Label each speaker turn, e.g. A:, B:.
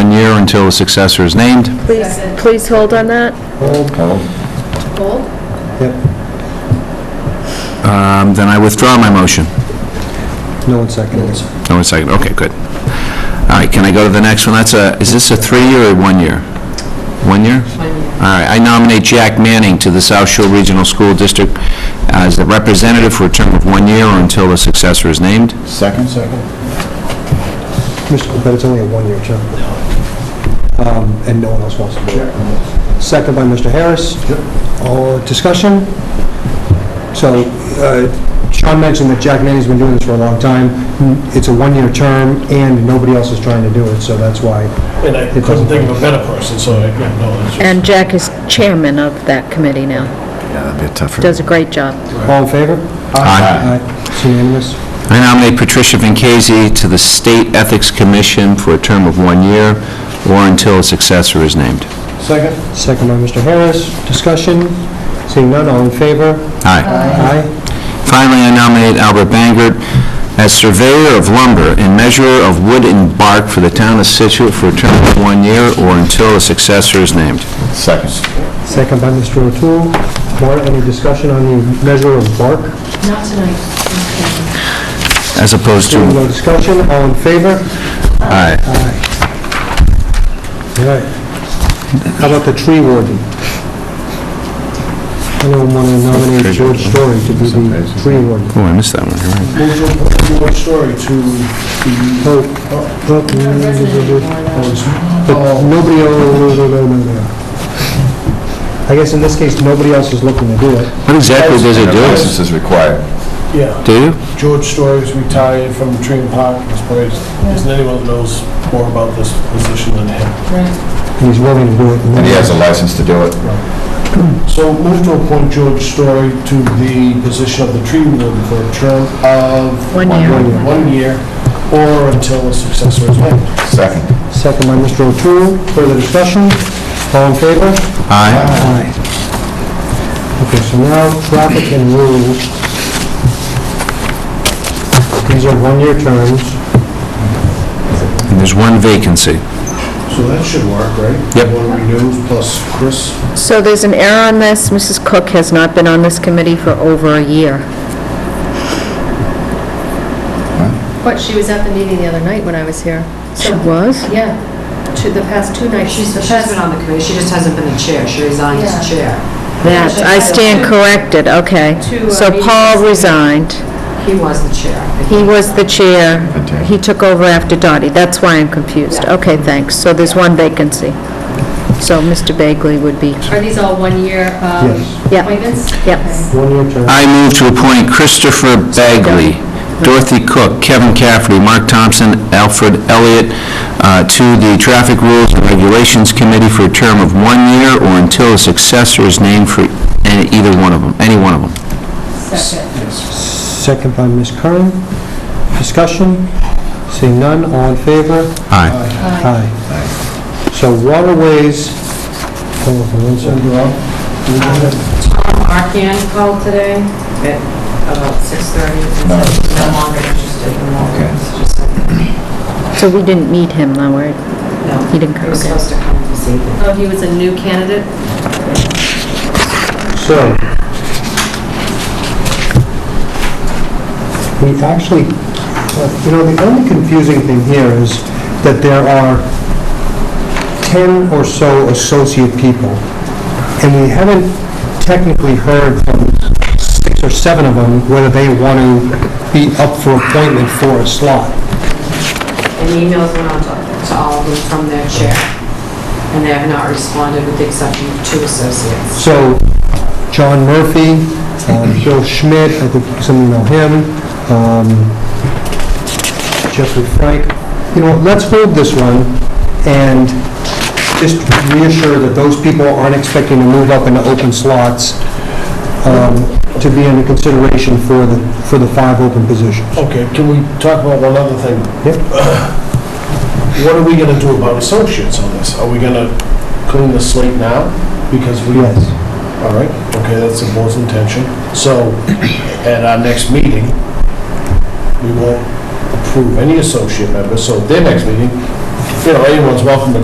A: matter until a successor is named.
B: Please, please hold on that.
C: Yep,
A: Um, Then I withdraw my motion.
C: no one seconds.
A: No one second, okay, good. All right, can I go to the next one? That's a, is this a three-year or one-year? One year? All right, I nominate Jack Manning to the South Shore Regional School District as the representative for a term of one year or until a successor is named.
D: Second? Second.
C: Mr. But it's only a one-year term. Um, And no one else wants to do it. Second by Mr. Harris. All discussion? So uh, Sean mentioned that Jack Manny's been doing this for a long time. It's a one-year term, and nobody else is trying to do it, so that's why.
E: And I
C: It
E: couldn't
C: doesn't-
E: think of a better person, so I, yeah, no, it's just...
B: And Jack is chairman of that committee now.
D: Yeah, that'd be a tougher.
B: Does a great job.
C: All in favor?
A: Aye.
C: Aye. It's unanimous.
A: I nominate Patricia Vinkasey to the State Ethics Commission for a term of one year or until a successor is named.
D: Second?
C: Second by Mr. Harris. Discussion? Seeing none, all in favor?
A: Aye.
C: Aye.
A: Finally, I nominate Albert Bangert as surveyor of lumber and measurer of wood and bark for the town of Situate for a term of one year or until a successor is named.
D: Second.
C: Second by Mr. O'Toole. Maura, any discussion on the measure of bark?
F: Not tonight.
A: As opposed to, oh,
C: Seeing no discussion, all in favor?
A: aye.
C: All right. How about the tree warden? Anyone want to nominate George Story to be the tree warden?
A: Oh, I missed that one, you're right.
E: Move your story to the...
C: Oh, oh, But nobody, else- no, no, no, no, no. I guess in this case, nobody else is looking to do it.
A: What exactly does it do?
D: License is required.
E: Yeah,
A: Do you?
E: George Story's retired from Dream Park, was placed. Isn't anyone knows more about this position than him?
C: And he's willing to do it.
D: And he has a license to do it.
E: So move to appoint George Story to the position of the tree warden for a term of...
B: One year.
E: One year, or until a successor is named.
D: Second.
C: Second by Mr. O'Toole. Further discussion? All in favor?
A: Aye.
C: Aye. Okay, so now traffic and rules. These are one-year terms.
A: And there's one vacancy.
E: So that should work, right?
A: Yep.
E: One renews plus Chris.
B: So there's an error on this. Mrs. Cook has not been on this committee for over a year.
F: But she was at the meeting the other night when I was here.
B: She
F: So,
B: was?
F: yeah, to the past two nights.
G: She's,
F: the
G: she's
F: past-
G: been on the committee, she just hasn't been the chair, she resigned as
F: Yeah.
G: chair.
B: That, I stand corrected, okay. So Paul resigned.
G: He was the chair.
B: He was the chair.
D: Okay.
B: He took over after Dottie. That's why I'm confused. Okay, thanks. So there's one vacancy. So Mr. Bagley would be,
F: Are these all one-year um,
C: Yes.
B: Yeah.
F: appointments?
B: yes.
C: One-year term.
A: I move to appoint Christopher Bagley, Dorothy Cook, Kevin Cafferty, Mark Thompson, Alfred Elliott uh, to the Traffic Rules and Regulations Committee for a term of one year or until a successor is named for any- either one of them, any one of them.
F: Second.
C: Second by Ms. Curran. Discussion? Seeing none, all in favor?
A: Aye.
C: Aye. So waterways, hold on for one second.
G: Tom Arcan called today at about 6:30 and said he's no longer interested in all
D: Okay.
G: this, just said,
B: So we didn't need him, though, right?
G: no.
B: He didn't come,
G: He was
B: okay.
G: supposed to come this evening.
F: Oh, he was a new candidate?
C: So, we actually, you know, the only confusing thing here is that there are 10 or so associate people, and we haven't technically heard from six or seven of them whether they want to be up for appointment for a slot.
G: And emails went out to to all of them from their chair, and they have not responded with the exception of two associates.
C: So, John Murphy, um, Bill Schmidt, I think some of you know him, um, Jeffrey Frank. You know, let's hold this one and just reassure that those people aren't expecting to move up into open slots um, to be under consideration for the, for the five open positions.
E: Okay, can we talk about one other thing?
C: Yep.
E: What are we gonna do about associates on this? Are we gonna clean the slate now? Because we...
C: Yes.
E: All right, okay, that's the board's intention. So, at our next meeting, we won't approve any associate members, so at their next meeting, you know, anyone's welcome to